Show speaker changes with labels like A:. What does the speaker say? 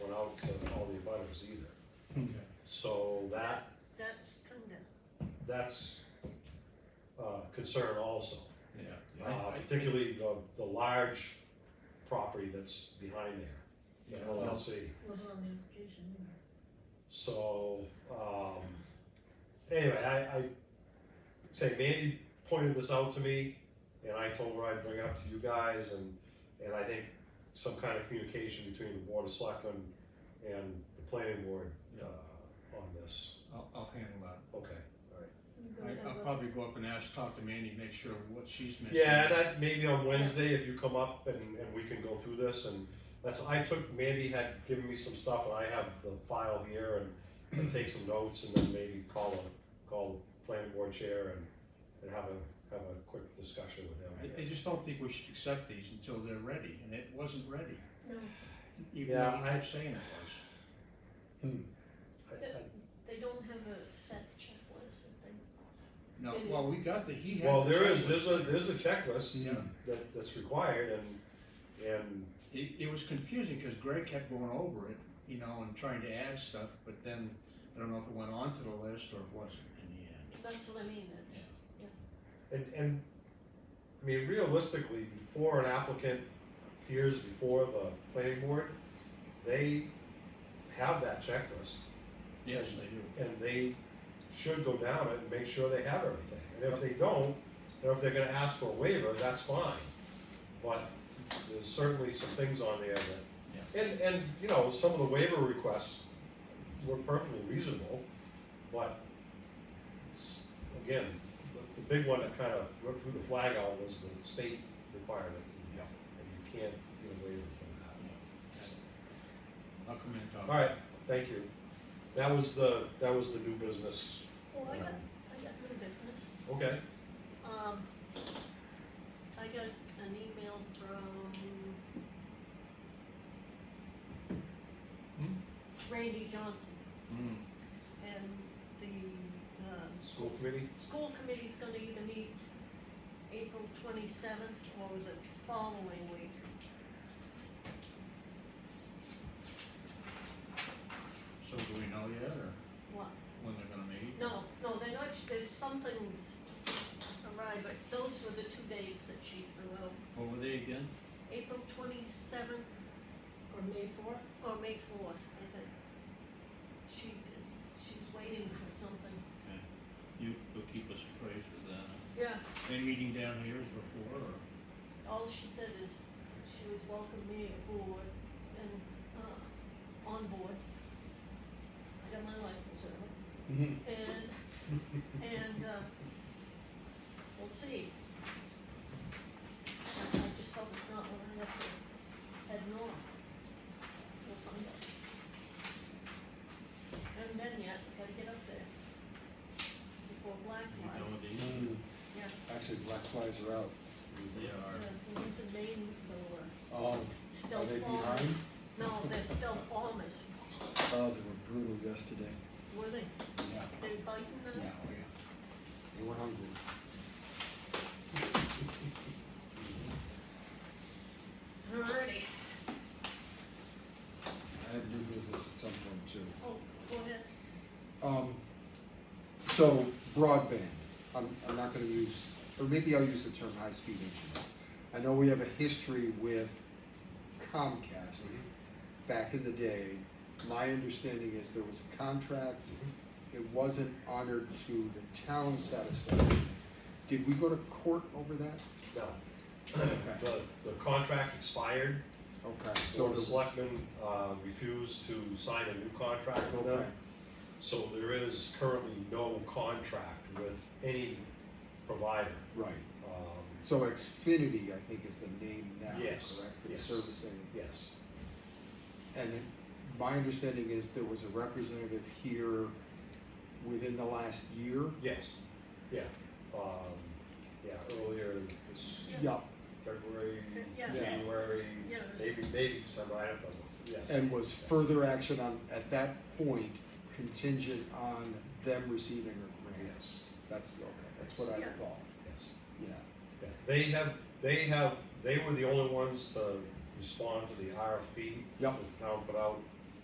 A: items either. So that,
B: That's kinda,
A: that's a concern also.
C: Yeah.
A: Uh,
C: I- I-
A: particularly the, the large property that's behind there,
C: Yeah,
A: the
C: well,
A: LLC.
B: wasn't on the application either.
A: So, um, anyway, I, I say Mandy pointed this out to me and I told her I'd bring it up to you guys and, and I think some kind of communication between the board of selectmen and the planning board,
C: Yeah.
A: uh, on this.
C: I'll, I'll handle that.
A: Okay.
B: You go
C: I,
B: have
C: I'll
B: a-
C: probably go up and ask, talk to Mandy, make sure what she's missing.
A: Yeah, that maybe on Wednesday, if you come up and, and we can go through this and that's, I took, Mandy had given me some stuff and I have the file here and I'll take some notes and then maybe call a, call the planning board chair and, and have a, have a quick discussion
C: I,
A: with
C: I
A: him.
C: just don't think we should accept these until they're ready, and it wasn't ready.
B: No,
C: Even
A: Yeah,
C: though you
A: I-
C: kept saying it was.
A: I- I-
B: they don't have a set checklist that they,
C: No,
B: Maybe.
C: well, we got the, he had.
A: Well,
C: the
A: there is,
C: checklist.
A: there's a, there's a checklist
C: Yeah,
A: that, that's required and, and,
C: it, it was confusing, cause Greg kept going over it, you know, and trying to add stuff, but then, I don't know if it went onto the list or it wasn't in the end.
B: that's what I mean, it's,
A: and, and, I mean, realistically, before an applicant appears before the planning board, they have that checklist.
C: Yes, they
A: and
C: do.
A: they should go down it and make sure they have everything. And if they don't, or if they're gonna ask for a waiver, that's fine. But there's certainly some things on there that, and, and, you know, some of the waiver requests were perfectly reasonable, but s- again, the, the big one that kind of threw the flag out was the state requirement.
C: Yeah.
A: And you can't get a waiver from that.
C: I'll come in and talk.
A: All right, thank you. That was the, that was the new business.
B: oh, I got, I got new business.
A: Okay.
B: Um, I got an email from
C: Hmm?
B: Randy Johnson,
C: Mm.
B: and the, um,
A: School committee?
B: school committee's gonna either meet April twenty-seventh or the following week.
C: So do we know yet, or
B: What,
C: when they're gonna meet?
B: no, no, they're not, there's something's awry, but those were the two dates that she threw out.
C: What were they again?
B: April twenty-seventh
D: Or May fourth?
B: or May fourth, I think. She, she's waiting for something.
C: You, will keep us appraised with that.
B: Yeah,
C: They meeting down here as before, or?
B: all she said is she was welcoming me aboard and, uh, on board. I got my life preserver. And, and, uh, we'll see. I just hope it's not when I have to head north. We'll find out. Haven't been yet, gotta get up there. Before black
C: You know
B: flies.
C: what they mean?
E: Mm.
B: Yeah.
E: Actually, black flies are out.
C: They are.
B: The ones in Maine, though, are
E: Oh, are
B: stealth
E: they
B: bombers.
E: behind?
B: No, they're stealth bombers,
E: Oh, they were brutal yesterday.
B: were they?
E: Yeah.
B: They biting
E: Yeah,
B: them?
E: oh yeah. They were hungry.
B: Alrighty.
E: I had new business at some point too.
B: Oh, go ahead.
E: Um, so broadband, I'm, I'm not gonna use, or maybe I'll use the term high-speed internet. I know we have a history with Comcast.
A: Mm-hmm.
E: Back in the day, my understanding is there was a contract.
A: Mm-hmm.
E: It wasn't honored to the town's satisfaction. Did we go to court over that?
A: No,
E: Okay,
A: the, the contract expired,
E: okay, so
A: so
E: it
A: the
E: was-
A: selectmen, uh, refused to sign a new contract with
E: Okay,
A: them. So there is currently no contract with any provider.
E: right.
A: Um,
E: So Xfinity, I think, is the name now, correct?
A: Yes,
E: It's
A: yes.
E: Servicing
A: yes,
E: And it- my understanding is there was a representative here within the last year?
A: yes, yeah, um, yeah, earlier this
E: Yeah.
A: February,
B: Yeah.
E: Yeah.
A: January,
B: Yeah, it was-
A: maybe, maybe some, I don't know, yes.
E: And was further action on, at that point, contingent on them receiving a grant?
A: Yes,
E: That's, okay, that's what I
B: Yeah.
E: thought,
A: yes.
E: yeah.
A: Yeah, They have, they have, they were the only ones to respond to the RFP.
E: Yep.
A: that The E town put out,